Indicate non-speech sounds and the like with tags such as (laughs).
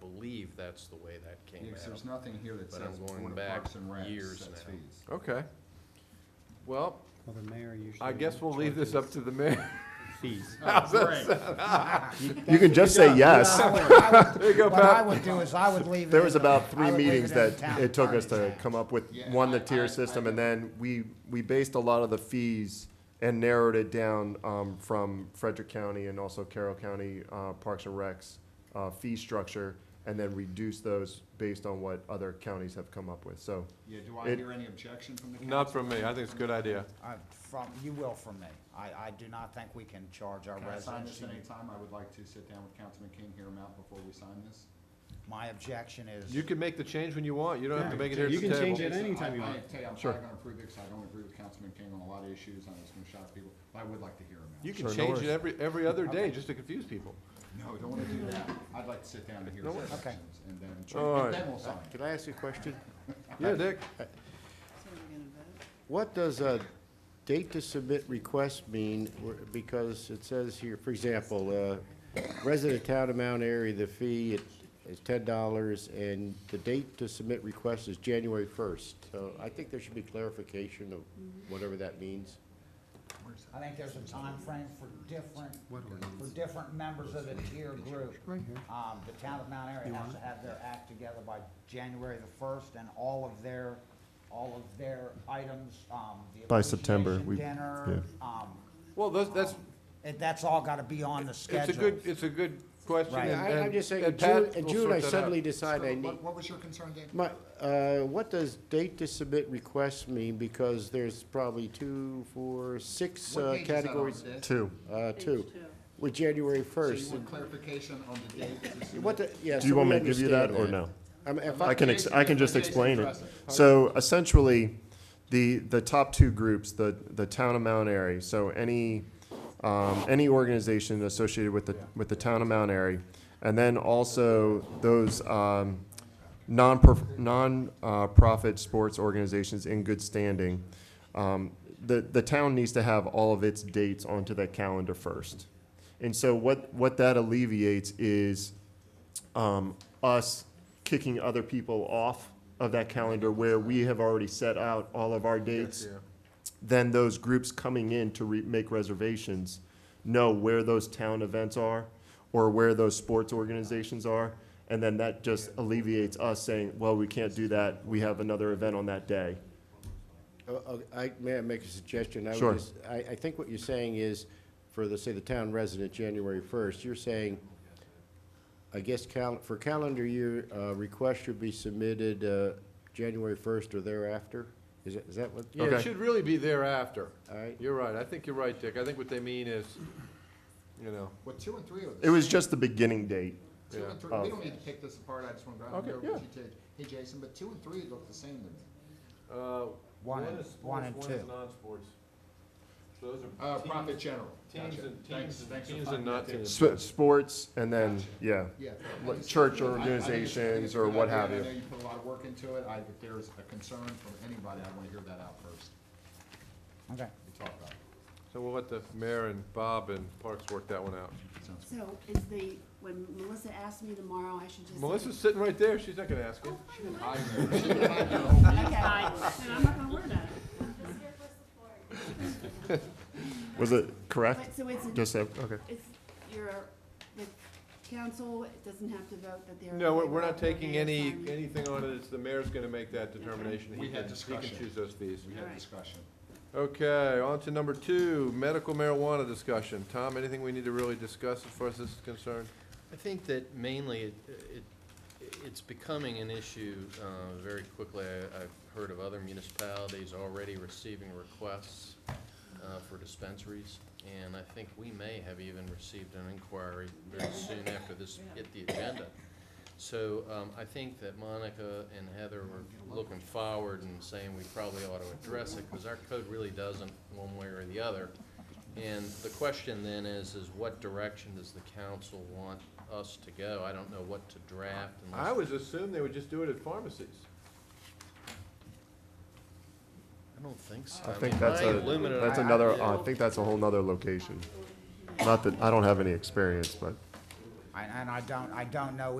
believe that's the way that came Because there's out. nothing here that But I'm says going Board of back Parks and Recs years sets now. fees. (laughs) Okay. Well, Well, the mayor usually. I guess we'll leave this up to the mayor. Fees. Oh, great. (laughs) You can just (laughs) say yes. There you go, What I Pat. would do is I would leave it. There in was the- about I three would leave meetings in the that town it took us to attorney's come up with, Yeah, one, the I- I- I tier system, and then we, we based a lot of the fees and narrowed it down, um, from Frederick County and also Carroll County, uh, Parks and Recs, uh, fee structure, and then reduced those based on what other counties have come up with, so. Yeah, do I It- hear any objection from the council? Not from me. I think it's a good idea. attorney. I- Uh, From, you will from me. I, I do not think we can charge our Can I sign this residents. anytime? I would like to sit down with Councilman King, hear him out before we sign this. My objection is. You can make the change when you want. You don't have to make it here at You the can change table. it anytime you I- want. I tell you, I'm Sure. not gonna approve it, because I don't agree with Councilman King on a lot of issues, and it's gonna shock people, but I would like to hear him You out. can Sure, no change it worries. every, every other day just to confuse people. No, don't wanna do that. I'd like to sit down and hear his worries. Okay. objections, and then, All and right. then we'll sign. Can I ask you a question? Uh, Yeah, Dick? What does a date to submit request mean? Where- Because it says here, for example, uh, resident town of Mount Airy, the fee it- is ten dollars, and the date to submit request is January first. So I think there should be clarification of Mm-hmm. whatever that means. I think there's a time frame for different, for different members of the tier group. Um, the town of Mount Airy has to have their act together by January the first, and all of their, all of their items, um, the By September, appreciation we- Dinner, um, Well, that's, that's, it, that's all gotta be on the schedule. it's a good, it's a good question. Right. Yeah, and- I- I'm just saying, and in June, Pat in will June, sort I that out. suddenly decide I So, need. What, what was your concern, Dan? My, uh, what does date to submit requests mean? Because there's probably two, four, six What uh, page is that on? categories. This? Two. Uh, two, with January So you first. want clarification on the date? to submit? What, the- yeah, Do you so want we me to give you that understand or no? I mean, if I I, can, ex- I can just explain it. So essentially, the, the top two groups, the, the town of Mount Airy, so any, um, any organization associated with the, with the town of Mount Airy, and then also those, um, non-prof, non-profit sports organizations in good standing. Um, the, the town needs to have all of its dates onto that calendar first. And so what, what that alleviates is, um, us kicking other people off of that calendar where we have already set out all of our dates, then those groups coming in to re- make reservations know where those town events are or where those sports organizations are. And then that just alleviates us saying, well, we can't do that. We have another event on that day. uh, I, may I make a suggestion? I would Sure. just- I, I think what you're saying is, for the, say, the town resident, January first, you're saying, I guess cal, for calendar year, uh, requests should be submitted, uh, January first or thereafter? Is that, is that what? Yeah, Okay. it should really be thereafter. All right. You're right. I think you're right, Dick. I think what they mean is, you know, What, two and three are the It was same. just the beginning date. Two and three, we don't need to pick this apart, I just want to, I Okay, don't know what you yeah. did. Hey, Jason, but two and three look the same to me. uh. One and- is one sports, and One is two. non-sports. So those are. Uh, teams- profit general. Teams Gotcha. and, Thanks- teams, thanks for teams and finding not that out. teams. Sp- sports and then, yeah. Yeah. Like church or I- I think it's- I think it's a organizations good or what idea. have I you. know you put a lot of work into it, I, if there's a concern from anybody, I want to hear that out first, Okay. we talk about it. So we'll let the mayor and Bob and Parks work that one out. Sounds- So is the, when Melissa asks me tomorrow, I should just. say- Melissa's sitting right there. She's not gonna ask you. (laughs) I know. She didn't have your whole meeting. Okay, then I'm not gonna worry about it. Was it correct? But so it's, Just, a- that- okay. it's, your, the council doesn't have to vote that they're. No, we're, okay we're not with the taking any, mayor's signing. anything on it. It's the mayor's gonna make that determination. He We had can- He discussion. can choose those fees. We had Alright. discussion. Okay, on to number two, medical marijuana discussion. Tom, anything we need to really discuss as far as this is concerned? I think that mainly it, it, it's becoming an issue, uh, very quickly. I, I've heard of other municipalities already receiving requests, uh, for dispensaries. And I think we may have even received an inquiry very soon after this hit the agenda. So, um, I think that Monica and Heather were looking forward and saying we probably ought to address it, cause our code really doesn't one way or the other. And the question then is, is what direction does the council want us to go? I don't know what to draft I unless, was assumed they would just do it at pharmacies. I don't think so. I mean, think that's my a, limited that's idea- another, I think that's a whole nother location. Not that, I don't have any experience, but. And, and I don't, I don't know